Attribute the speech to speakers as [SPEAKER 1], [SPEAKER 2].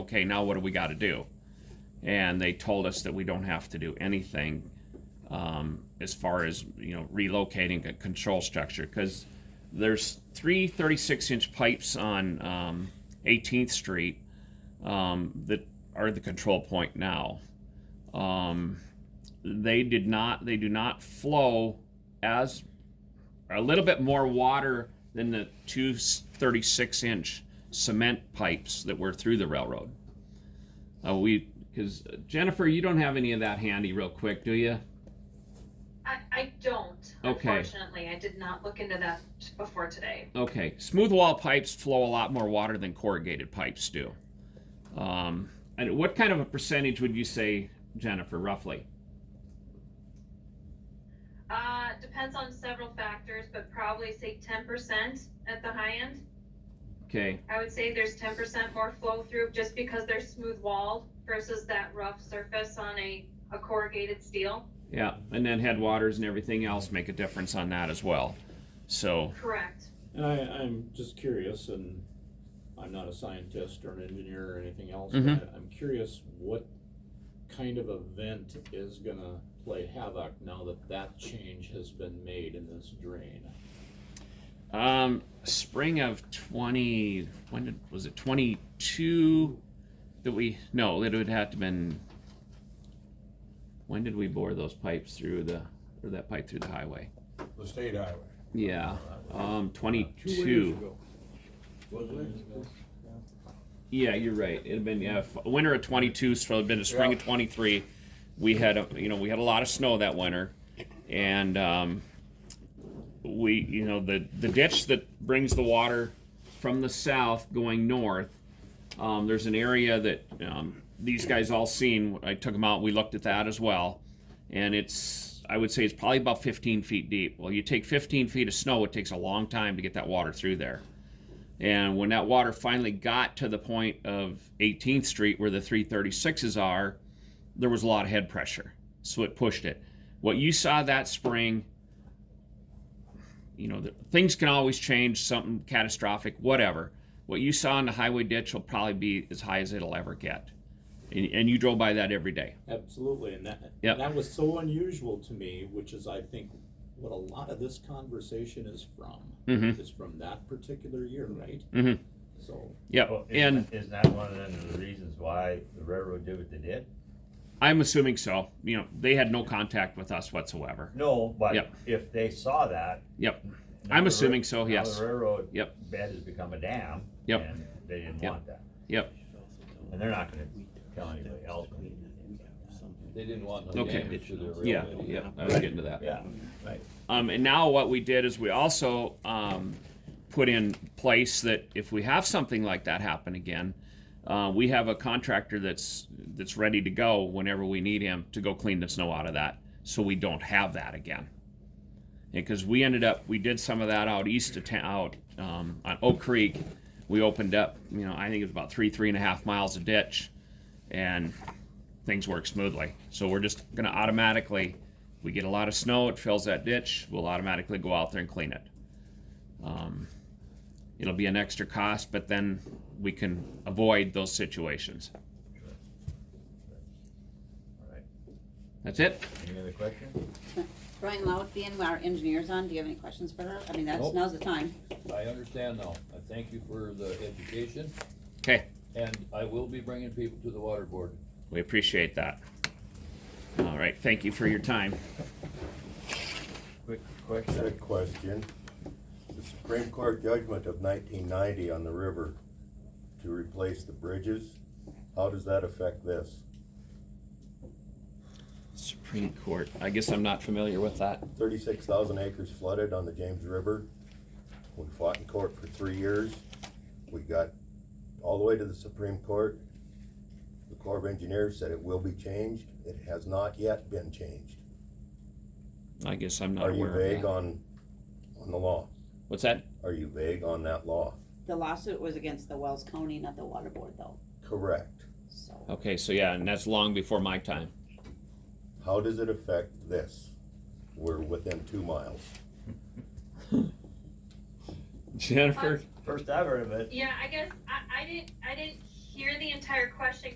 [SPEAKER 1] okay, now what do we got to do? And they told us that we don't have to do anything um, as far as you know relocating a control structure because there's three 36 inch pipes on um, 18th Street um, that are the control point now. Um, they did not they do not flow as a little bit more water than the two 36 inch cement pipes that were through the railroad. Uh, we because Jennifer, you don't have any of that handy real quick, do you?
[SPEAKER 2] I, I don't,
[SPEAKER 1] Okay.
[SPEAKER 2] unfortunately. I did not look into that before today.
[SPEAKER 1] Okay, smooth wall pipes flow a lot more water than corrugated pipes do. Um, and what kind of a percentage would you say, Jennifer, roughly?
[SPEAKER 2] Uh, depends on several factors, but probably say ten percent at the high end.
[SPEAKER 1] Okay,
[SPEAKER 2] I would say there's ten percent more flow through just because they're smooth walled versus that rough surface on a, a corrugated steel.
[SPEAKER 1] yeah, and then headwaters and everything else make a difference on that as well. So,
[SPEAKER 2] Correct.
[SPEAKER 3] And I, I'm just curious, and I'm not a scientist or an engineer or anything else,
[SPEAKER 1] Mhm.
[SPEAKER 3] but I'm curious what kind of event is gonna play havoc now that that change has been made in this drain.
[SPEAKER 1] um, spring of 20, when did, was it 22 that we, no, it would have to been, when did we bore those pipes through the, or that pipe through the highway?
[SPEAKER 4] The state highway.
[SPEAKER 1] Yeah, um, 22.
[SPEAKER 4] Was
[SPEAKER 1] Yeah, you're right. It'd been yeah, f- winter of 22, so it'd been a spring of
[SPEAKER 4] Yeah.
[SPEAKER 1] 23. We had a, you know we had a lot of snow that winter, and um, we you know the the ditch that brings the water from the south going north. Um, there's an area that um, these guys all seen. I took them out. We looked at that as well, and it's I would say it's probably about 15 feet deep. Well, you take 15 feet of snow, it takes a long time to get that water through there. And when that water finally got to the point of 18th Street where the 336s are, there was a lot of head pressure. So it pushed it. What you saw that spring, you know, the, things can always change, something catastrophic, whatever. What you saw in the highway ditch will probably be as high as it'll ever get. And, and you drove by that every day.
[SPEAKER 3] Absolutely, and that,
[SPEAKER 1] Yep.
[SPEAKER 3] that was so unusual to me, which is, I think, what a lot of this conversation is from,
[SPEAKER 1] Mhm.
[SPEAKER 3] is from that particular year, right?
[SPEAKER 1] Mhm.
[SPEAKER 3] So,
[SPEAKER 1] Yep.
[SPEAKER 5] Well, isn't
[SPEAKER 1] and
[SPEAKER 5] that- Isn't that one of the reasons why the railroad did what they did?
[SPEAKER 1] I'm assuming so. You know, they had no contact with us whatsoever.
[SPEAKER 5] No, but
[SPEAKER 1] Yep.
[SPEAKER 5] if they saw that.
[SPEAKER 1] Yep.
[SPEAKER 5] now
[SPEAKER 1] I'm
[SPEAKER 5] the
[SPEAKER 1] assuming
[SPEAKER 5] rail-
[SPEAKER 1] so,
[SPEAKER 5] now
[SPEAKER 1] yes.
[SPEAKER 5] The railroad.
[SPEAKER 1] Yep.
[SPEAKER 5] Bed has become a dam.
[SPEAKER 1] Yep.
[SPEAKER 5] And they didn't
[SPEAKER 1] Yep.
[SPEAKER 5] want that.
[SPEAKER 1] Yep.
[SPEAKER 5] And they're not gonna tell anybody else.
[SPEAKER 6] They didn't want
[SPEAKER 1] no Okay. damage Yeah. Yeah. I was getting to that.
[SPEAKER 5] Yeah, right.
[SPEAKER 1] Um, and now what we did is we also um, put in place that if we have something like that happen again, uh, we have a contractor that's that's ready to go whenever we need him to go clean the snow out of that, so we don't have that again. Because we ended up, we did some of that out east of town, out um, on Oak Creek. We opened up, you know, I think it was about three, three and a half miles of ditch, and things work smoothly. So we're just gonna automatically, we get a lot of snow, it fills that ditch, we'll automatically go out there and clean it. Um, It'll be an extra cost, but then we can avoid those situations.
[SPEAKER 5] All right.
[SPEAKER 1] That's it?
[SPEAKER 5] Any other questions?
[SPEAKER 7] Brian Loud being our engineer's on, do you have any questions for her? I mean, that's,
[SPEAKER 6] Nope.
[SPEAKER 7] now's the time.
[SPEAKER 6] I understand now. I thank you for the education,
[SPEAKER 1] Okay,
[SPEAKER 6] and I will be bringing people to the water board.
[SPEAKER 1] we appreciate that. All right, thank you for your time.
[SPEAKER 5] Quick question.
[SPEAKER 8] Good question. The Supreme Court judgment of nineteen ninety on the river to replace the bridges, how does that affect this?
[SPEAKER 1] Supreme Court, I guess I'm not familiar with that.
[SPEAKER 8] Thirty-six thousand acres flooded on the James River. We fought in court for three years. We got all the way to the Supreme Court. The Corps of Engineers said it will be changed. It has not yet been changed.
[SPEAKER 1] I guess I'm not
[SPEAKER 8] Are you
[SPEAKER 1] aware of
[SPEAKER 8] vague
[SPEAKER 1] that.
[SPEAKER 8] on, on the law?
[SPEAKER 1] What's that?
[SPEAKER 8] Are you vague on that law?
[SPEAKER 7] The lawsuit was against the Wells County, not the water board though,
[SPEAKER 8] Correct.
[SPEAKER 7] so.
[SPEAKER 1] Okay, so yeah, and that's long before my time.
[SPEAKER 8] How does it affect this? We're within two miles.
[SPEAKER 1] Jennifer?
[SPEAKER 5] First I've heard of it.
[SPEAKER 2] Yeah, I guess I, I didn't I didn't hear the entire question